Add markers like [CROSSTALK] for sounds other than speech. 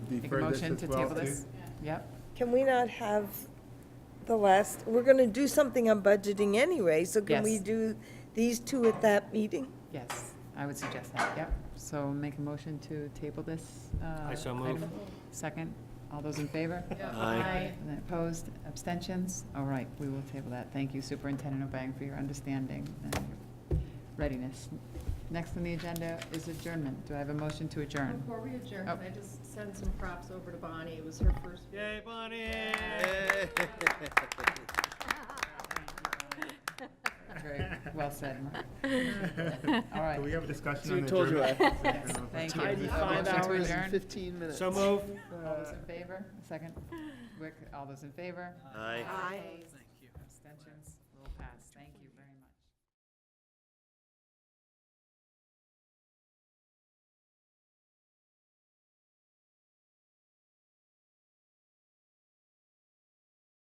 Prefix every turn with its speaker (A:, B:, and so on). A: Make a
B: defer this
A: motion
B: as
A: to
B: well?
A: table this? Yep.
C: Can we not have the last, we're going to do something on budgeting anyway, so can we
A: Yes.
C: do these two at that meeting?
A: Yes, I would suggest that, yep. So make a motion to table this. uh,
D: so move.
A: item. Second, all those in favor?
D: Aye.
A: And then Opposed, abstentions? All right, we will table that. Thank you Superintendent Obang for your understanding and your readiness. Next on the agenda is adjournment. Do I have a motion to adjourn?
E: Before we adjourn,
A: Oh.
E: can I just send some props over to Bonnie? It was her first. [LAUGHS]
D: Yay, Bonnie!
A: [LAUGHS] Very
B: [LAUGHS]
A: well said, Mark. All right.
B: Can we have a discussion
F: So
B: on
F: we told you I-
B: [LAUGHS]
F: [LAUGHS]
B: adjournment?
A: Yes, Thank you.
F: Tidy
A: Motion
F: five
A: to
F: hours
A: adjourn.
F: and fifteen minutes.
D: So move.
A: All those in favor? Second. Wick, all those in favor?
D: Aye.
A: Abstentions? Will pass. Thank you.